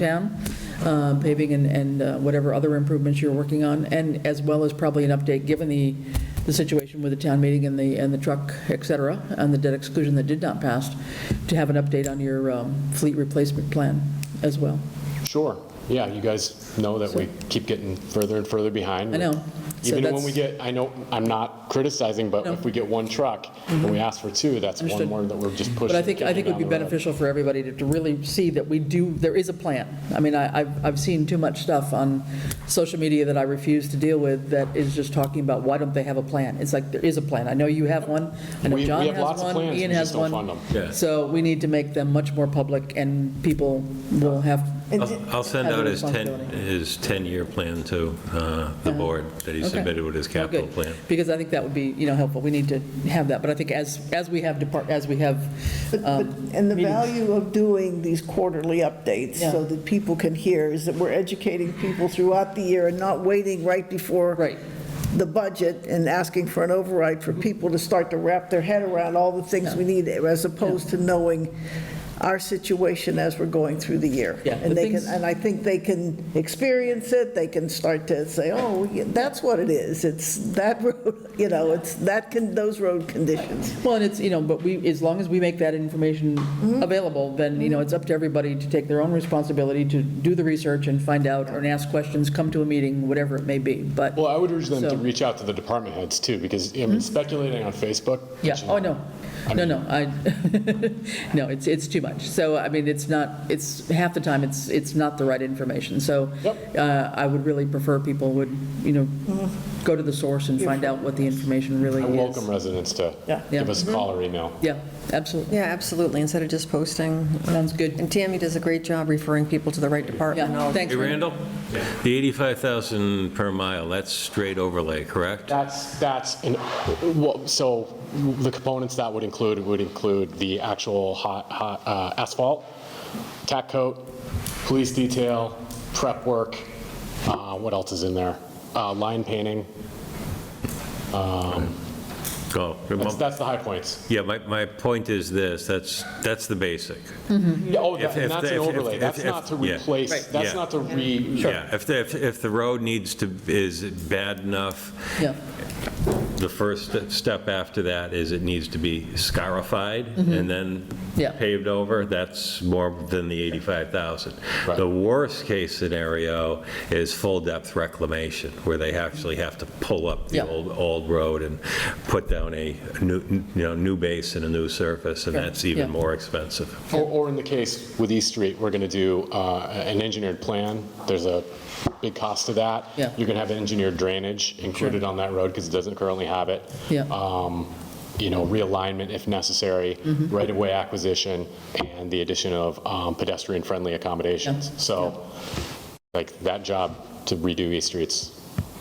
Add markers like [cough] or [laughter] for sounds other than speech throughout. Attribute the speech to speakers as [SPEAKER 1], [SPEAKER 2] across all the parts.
[SPEAKER 1] town, uh, paving and- and uh, whatever other improvements you're working on, and as well as probably an update, given the, the situation with the town meeting and the, and the truck, et cetera, and the debt exclusion that did not pass, to have an update on your um, fleet replacement plan as well.
[SPEAKER 2] Sure, yeah, you guys know that we keep getting further and further behind.
[SPEAKER 1] I know. So
[SPEAKER 2] Even when
[SPEAKER 1] that's-
[SPEAKER 2] we get, I know, I'm not criticizing, but if we get one truck and we ask for two, that's
[SPEAKER 1] Mm-hmm.
[SPEAKER 2] one
[SPEAKER 1] Understood.
[SPEAKER 2] more that we're just pushing.
[SPEAKER 1] But I think, I think it would be
[SPEAKER 2] kicking down the road.
[SPEAKER 1] beneficial for everybody to- to really see that we do, there is a plan. I mean, I, I've, I've seen too much stuff on social media that I refuse to deal with that is just talking about, why don't they have a plan? It's like, there is a plan. I know you have one, I know
[SPEAKER 2] We- we
[SPEAKER 1] John
[SPEAKER 2] have
[SPEAKER 1] has
[SPEAKER 2] lots of
[SPEAKER 1] one,
[SPEAKER 2] plans,
[SPEAKER 1] Ian
[SPEAKER 2] we
[SPEAKER 1] has
[SPEAKER 2] just
[SPEAKER 1] one.
[SPEAKER 2] don't fund them.
[SPEAKER 1] So we need to make them much more public, and people will have.
[SPEAKER 3] I'll I'll send
[SPEAKER 1] have
[SPEAKER 3] out
[SPEAKER 1] the
[SPEAKER 3] his 10,
[SPEAKER 1] responsibility. Uh-huh.
[SPEAKER 3] his 10-year plan to uh, the board that he
[SPEAKER 1] Okay.
[SPEAKER 3] submitted with his
[SPEAKER 1] Oh, good.
[SPEAKER 3] capital plan.
[SPEAKER 1] Because I think that would be, you know, helpful. We need to have that, but I think as, as we have depart, as we have. um,
[SPEAKER 4] But- but- And the value of doing these quarterly updates so
[SPEAKER 1] Yeah.
[SPEAKER 4] that people can hear is that we're educating people throughout the year and not waiting right before
[SPEAKER 1] Right.
[SPEAKER 4] the budget and asking for an override for people to start to wrap their head around all the things we need as opposed to knowing our situation as we're going through the year.
[SPEAKER 1] Yeah, the
[SPEAKER 4] And they can,
[SPEAKER 1] things-
[SPEAKER 4] and I think they can experience it, they can start to say, oh, yeah, that's what it is. It's that road, [laughs] you know, it's that, con- those road conditions.
[SPEAKER 1] Well, and it's, you know, but we, as long as we make that information available, then, you know, it's up to everybody to take their own responsibility to do the research and find out, or ask questions, come to a meeting, whatever it may be, but,
[SPEAKER 2] Well, I would urge them
[SPEAKER 1] So- Mm-hmm.
[SPEAKER 2] to reach out to the department heads too, because, I mean, speculating on Facebook.
[SPEAKER 1] yeah,
[SPEAKER 2] which,
[SPEAKER 1] oh, no,
[SPEAKER 2] I
[SPEAKER 1] no,
[SPEAKER 2] mean-
[SPEAKER 1] no, I, [laughs] no, it's, it's too much. So, I mean, it's not, it's, half the time, it's, it's not the right information, so
[SPEAKER 2] Yep.
[SPEAKER 1] uh, I would really prefer people would, you know, go to the source and find out what the information really
[SPEAKER 2] I
[SPEAKER 1] is.
[SPEAKER 2] welcome residents to
[SPEAKER 1] Yeah.
[SPEAKER 4] Yeah.
[SPEAKER 1] Mm-hmm.
[SPEAKER 2] give us a call or email.
[SPEAKER 1] Yeah, absolutely,
[SPEAKER 5] Yeah, absolutely, instead of just posting.
[SPEAKER 1] sounds good.
[SPEAKER 5] And Tammy does a great job referring people to the right department.
[SPEAKER 1] Yeah, thanks.
[SPEAKER 3] Hey, Randall? The 85,000 per mile, that's straight overlay, correct?
[SPEAKER 2] That's, that's, an- well, so the components that would include would include the actual hot, hot uh, asphalt, tack coat, police detail, prep work, uh, what else is in there? Uh, Line painting,
[SPEAKER 3] Oh,
[SPEAKER 2] that's, that's the high points.
[SPEAKER 3] Yeah, my, my point is this, that's, that's the basic.
[SPEAKER 2] Yeah, Oh, that-
[SPEAKER 3] If-
[SPEAKER 2] and
[SPEAKER 3] if
[SPEAKER 2] that's
[SPEAKER 3] they-
[SPEAKER 2] an
[SPEAKER 3] if- if-
[SPEAKER 2] overlay, that's
[SPEAKER 3] if-
[SPEAKER 2] not to
[SPEAKER 3] yeah.
[SPEAKER 2] replace,
[SPEAKER 1] Right.
[SPEAKER 2] that's
[SPEAKER 3] Yeah.
[SPEAKER 2] not to re,
[SPEAKER 3] Yeah, if, the- if if the road needs to, is bad enough,
[SPEAKER 1] Yeah,
[SPEAKER 3] the first st- step after that is it needs to be scarified and then
[SPEAKER 1] Mm-hmm. Yeah.
[SPEAKER 3] paved over, that's more than the 85,000.
[SPEAKER 2] Right.
[SPEAKER 3] The worst-case scenario is full-depth reclamation, where they actually have to pull up the
[SPEAKER 1] Yeah.
[SPEAKER 3] old, old road and put down a new, you know, new base and a new surface, and
[SPEAKER 1] Sure.
[SPEAKER 3] that's even
[SPEAKER 1] Yeah.
[SPEAKER 3] more expensive.
[SPEAKER 2] or, or in the case with East Street, we're going to do uh, an engineered plan. There's a big cost to that.
[SPEAKER 1] Yeah.
[SPEAKER 2] You're going to have engineered drainage included on that road because it doesn't currently have it.
[SPEAKER 1] Yeah.
[SPEAKER 2] Um, You know, realignment if necessary,
[SPEAKER 1] Mm-hmm.
[SPEAKER 2] right-of-way acquisition, and the addition of um, pedestrian-friendly accommodations. So, like, that job to redo East Street's,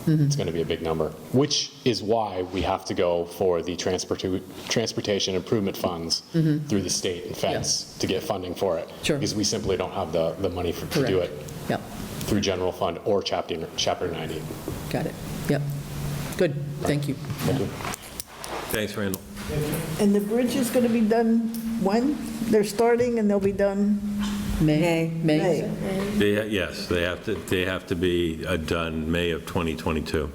[SPEAKER 2] it's going to be a big number, which is why we have to go for the transportu- transportation improvement funds through the state and feds to get funding for it.
[SPEAKER 1] Mm-hmm. Sure.
[SPEAKER 2] Because we simply don't have the, the money for- to do
[SPEAKER 1] correct.
[SPEAKER 2] it
[SPEAKER 1] Yeah.
[SPEAKER 2] through general fund or chapter, chapter 90.
[SPEAKER 1] Got it. Yep. Good. Thank you.
[SPEAKER 3] Thanks, Randall.
[SPEAKER 4] And the bridge is going to be done when? They're starting and they'll be done
[SPEAKER 1] May.
[SPEAKER 4] May.
[SPEAKER 1] May.
[SPEAKER 3] They, ha- yes, they have to, they have to be uh, done May of 2022.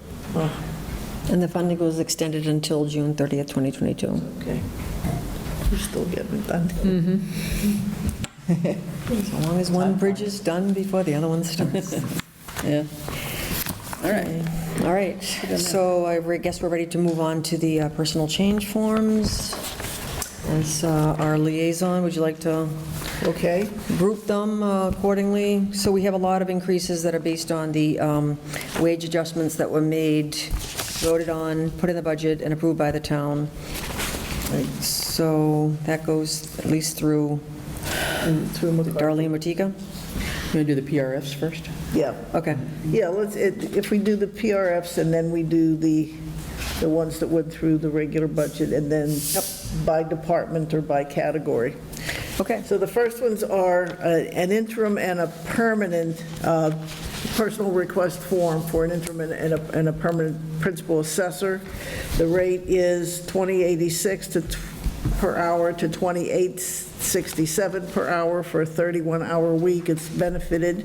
[SPEAKER 5] And the funding was extended until June 30th, 2022.
[SPEAKER 4] Okay. We're still getting it done.
[SPEAKER 5] So long as one bridge is done before the other one [laughs] starts.
[SPEAKER 1] Yeah. All right.
[SPEAKER 5] All right, so I re- guess we're ready to move on to the uh, personal change forms. As uh, our liaison, would you like to
[SPEAKER 4] Okay,
[SPEAKER 5] group them uh, accordingly. So we have a lot of increases that are based on the um, wage adjustments that were made, voted on, put in the budget, and approved by the town. So that goes at least through
[SPEAKER 4] through McCarthy.
[SPEAKER 5] Darlene Matika?
[SPEAKER 1] You want to do the PRFs first?
[SPEAKER 4] Yeah,
[SPEAKER 5] Okay,
[SPEAKER 4] yeah, let's, it- if we do the PRFs and then we do the, the ones that went through the regular budget and then by department or by category.
[SPEAKER 5] okay.
[SPEAKER 4] So the first ones are uh, an interim and a permanent uh, personal request form for an interim and a, and a permanent principal assessor. The rate is 2086 to tw- per hour to 2867 per hour for a 31-hour week. It's benefited